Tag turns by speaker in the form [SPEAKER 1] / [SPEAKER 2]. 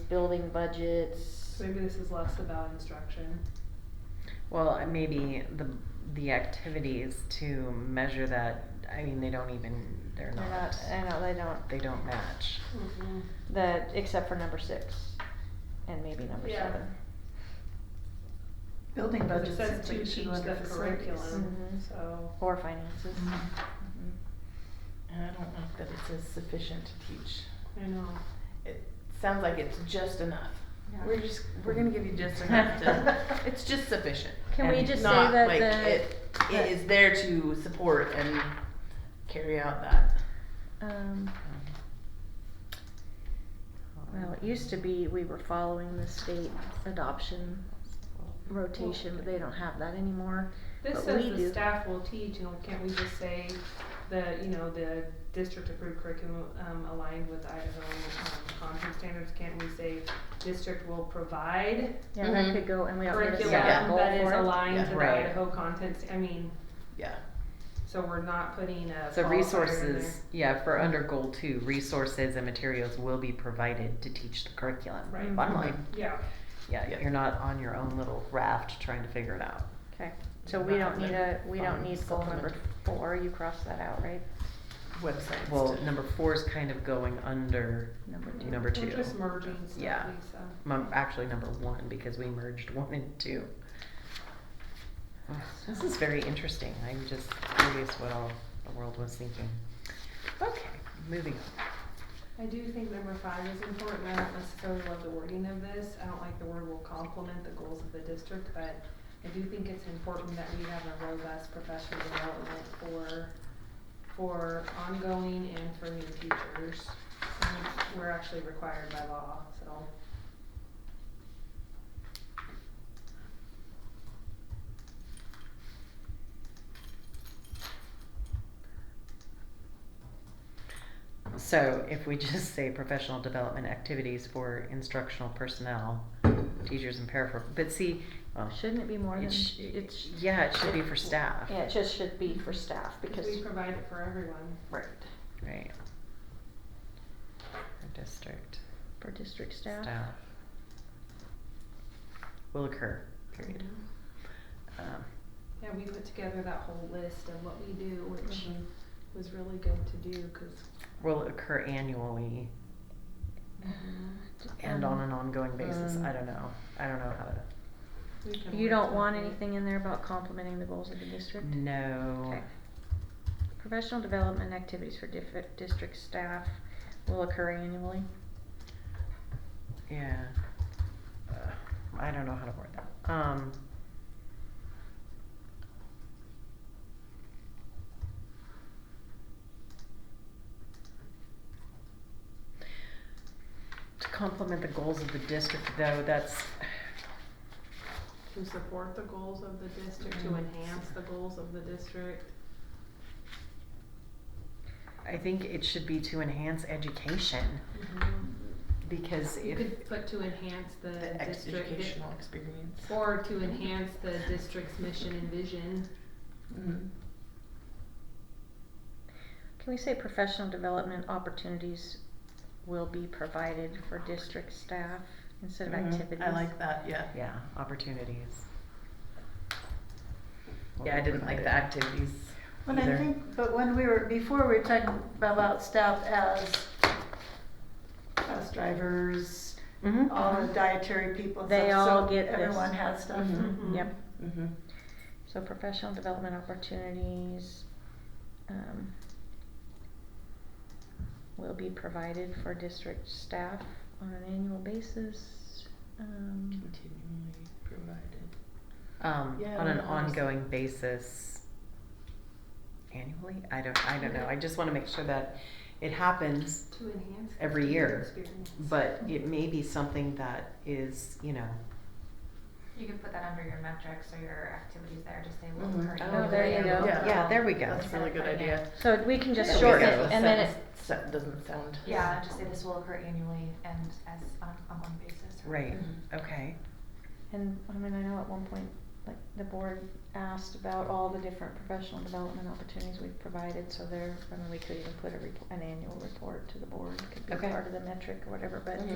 [SPEAKER 1] building budgets.
[SPEAKER 2] Maybe this is less about instruction.
[SPEAKER 3] Well, and maybe the, the activities to measure that, I mean, they don't even, they're
[SPEAKER 1] They're
[SPEAKER 3] not,
[SPEAKER 1] not, I know, they don't,
[SPEAKER 3] they don't match.
[SPEAKER 1] Mm-hmm. the, except for number six, and maybe number
[SPEAKER 2] Yeah.
[SPEAKER 1] seven.
[SPEAKER 4] Building
[SPEAKER 2] Because it
[SPEAKER 4] budgets is
[SPEAKER 2] says
[SPEAKER 4] what
[SPEAKER 2] to
[SPEAKER 4] you should
[SPEAKER 2] teach
[SPEAKER 4] go under
[SPEAKER 2] the
[SPEAKER 4] facilities.
[SPEAKER 2] curriculum,
[SPEAKER 1] Mhm.
[SPEAKER 2] so.
[SPEAKER 1] Or finances. Mhm.
[SPEAKER 5] And I don't know that it says sufficient to teach.
[SPEAKER 2] I know.
[SPEAKER 5] It sounds like it's just enough.
[SPEAKER 4] Yeah.
[SPEAKER 5] We're just, we're gonna give you just enough to, it's just sufficient.
[SPEAKER 1] Can we
[SPEAKER 5] And
[SPEAKER 1] just say
[SPEAKER 5] not
[SPEAKER 1] that
[SPEAKER 5] like
[SPEAKER 1] the-
[SPEAKER 5] it- It is there to support and carry out that.
[SPEAKER 1] Um, well, it used to be we were following the state adoption rotation, but they don't have that anymore.
[SPEAKER 2] This
[SPEAKER 1] But
[SPEAKER 2] says
[SPEAKER 1] we
[SPEAKER 2] the
[SPEAKER 1] do.
[SPEAKER 2] staff will teach, you know, can't we just say the, you know, the district approved curriculum um, aligned with Idaho um, content standards? Can't we say district will provide
[SPEAKER 1] Yeah, that
[SPEAKER 5] Mhm.
[SPEAKER 1] could go, and we don't need a
[SPEAKER 2] curriculum
[SPEAKER 1] set goal for
[SPEAKER 2] that
[SPEAKER 1] it.
[SPEAKER 2] is aligned to the
[SPEAKER 3] Right.
[SPEAKER 2] Idaho content? st- I mean,
[SPEAKER 5] Yeah.
[SPEAKER 2] so we're not putting a. qualifier
[SPEAKER 3] So
[SPEAKER 2] in
[SPEAKER 3] resources, yeah, for under goal two, resources and materials will be provided to teach the curriculum.
[SPEAKER 2] Right.
[SPEAKER 3] Bottom
[SPEAKER 1] Mm-hmm.
[SPEAKER 3] line,
[SPEAKER 2] there. Mm-hmm. Yeah.
[SPEAKER 3] yeah, you're not on your own little raft trying to figure it out.
[SPEAKER 1] Okay, so we
[SPEAKER 5] Not
[SPEAKER 1] don't need a,
[SPEAKER 5] the
[SPEAKER 1] we don't
[SPEAKER 5] fund
[SPEAKER 1] need goal number four, you crossed that out, right?
[SPEAKER 5] Websites.
[SPEAKER 3] Well,
[SPEAKER 5] to-
[SPEAKER 3] number four is kind of going under
[SPEAKER 1] Number two.
[SPEAKER 3] number two.
[SPEAKER 2] We're just merging stuff,
[SPEAKER 3] Yeah.
[SPEAKER 2] Lisa.
[SPEAKER 3] Mum- Actually, number one, because we merged one and two. This is very interesting. I'm just curious what all the world was thinking. Okay, moving on.
[SPEAKER 2] I do think number five is important, I don't necessarily love the wording of this, I don't like the word will complement the goals of the district, but I do think it's important that we have a robust professional development for, for ongoing and for new teachers. And We're actually required by law, so.
[SPEAKER 3] So if we just say professional development activities for instructional personnel, teachers and paraprofessionals, but see, well.
[SPEAKER 1] Shouldn't it be Oh, more
[SPEAKER 3] it
[SPEAKER 1] than,
[SPEAKER 3] sh-
[SPEAKER 1] it's.
[SPEAKER 3] Yeah, it should be for staff.
[SPEAKER 1] Yeah, it just should be for staff, because.
[SPEAKER 2] We provide it for everyone.
[SPEAKER 1] Right.
[SPEAKER 3] Right. For district.
[SPEAKER 1] For district staff.
[SPEAKER 3] Staff. Will occur, period.
[SPEAKER 1] Mm-hmm.
[SPEAKER 3] Um,
[SPEAKER 2] Yeah, we put together that whole list of what we do, which
[SPEAKER 1] Mhm.
[SPEAKER 2] was really good to do, cause.
[SPEAKER 3] Will occur annually
[SPEAKER 1] Mm-hmm.
[SPEAKER 3] and on an ongoing basis.
[SPEAKER 1] Um,
[SPEAKER 3] I don't know. I don't know how to.
[SPEAKER 2] we can
[SPEAKER 1] You
[SPEAKER 2] work
[SPEAKER 1] don't want
[SPEAKER 2] something.
[SPEAKER 1] anything in there about complementing the goals of the district?
[SPEAKER 3] No.
[SPEAKER 1] Okay. Professional development activities for diff- district staff will occur annually.
[SPEAKER 3] Yeah. Uh, I don't know how to word that. Um. To complement the goals of the district, though, that's
[SPEAKER 2] To support the goals of the district, to
[SPEAKER 3] Mm.
[SPEAKER 2] enhance the goals of the district.
[SPEAKER 3] I think it should be to enhance education Mm-hmm. because
[SPEAKER 2] You
[SPEAKER 3] if
[SPEAKER 2] could put to enhance the
[SPEAKER 5] The ex-
[SPEAKER 2] district,
[SPEAKER 5] educational experience.
[SPEAKER 2] or to enhance the district's mission and vision.
[SPEAKER 5] Mhm.
[SPEAKER 4] Mm-hmm.
[SPEAKER 1] Can we say professional development opportunities will be provided for district staff instead of
[SPEAKER 5] Mhm.
[SPEAKER 1] activities?
[SPEAKER 5] I like that, yeah.
[SPEAKER 3] yeah, opportunities.
[SPEAKER 5] Yeah, I didn't like the activities
[SPEAKER 4] Well, I
[SPEAKER 3] either.
[SPEAKER 4] think, but when we were, before we were talking about staff as bus drivers,
[SPEAKER 3] Mhm.
[SPEAKER 4] all the dietary people and
[SPEAKER 1] They
[SPEAKER 4] stuff,
[SPEAKER 1] all
[SPEAKER 4] so
[SPEAKER 1] get this.
[SPEAKER 4] Everyone has stuff.
[SPEAKER 5] Mhm.
[SPEAKER 1] Yep.
[SPEAKER 5] Mm-hmm.
[SPEAKER 1] So professional development opportunities, um, will be provided for district staff on an annual basis, um.
[SPEAKER 5] Continually provided.
[SPEAKER 3] Um,
[SPEAKER 5] Yeah,
[SPEAKER 3] on an
[SPEAKER 5] no, I was-
[SPEAKER 3] ongoing basis. Annually? I don't, I don't know. I just wanna make sure that it happens,
[SPEAKER 2] To enhance.
[SPEAKER 3] the Every year,
[SPEAKER 2] district experience.
[SPEAKER 3] but it may be something that is, you know,
[SPEAKER 6] You could put that under your metrics or your activities there, just say will
[SPEAKER 4] Mm-hmm.
[SPEAKER 5] Mhm.
[SPEAKER 6] occur.
[SPEAKER 1] Oh, there you
[SPEAKER 6] annually.
[SPEAKER 1] go.
[SPEAKER 5] Yeah.
[SPEAKER 3] Mm-hmm. yeah, there we go.
[SPEAKER 5] That's a really good idea.
[SPEAKER 1] So we can just
[SPEAKER 5] Yeah,
[SPEAKER 1] shorten
[SPEAKER 5] because
[SPEAKER 1] it and then it,
[SPEAKER 5] sentence so- Doesn't sound.
[SPEAKER 6] Yeah, just say this will occur annually and as on, on one basis. Mm-hmm. or-
[SPEAKER 3] Right,
[SPEAKER 5] Mhm.
[SPEAKER 3] okay.
[SPEAKER 1] And I mean, I know at one point, like, the board asked about all the different professional development opportunities we've provided, so there, I mean, we could even put a report, an annual report to the board, could be
[SPEAKER 3] Okay.
[SPEAKER 1] part of the metric or whatever, but.
[SPEAKER 5] Mhm.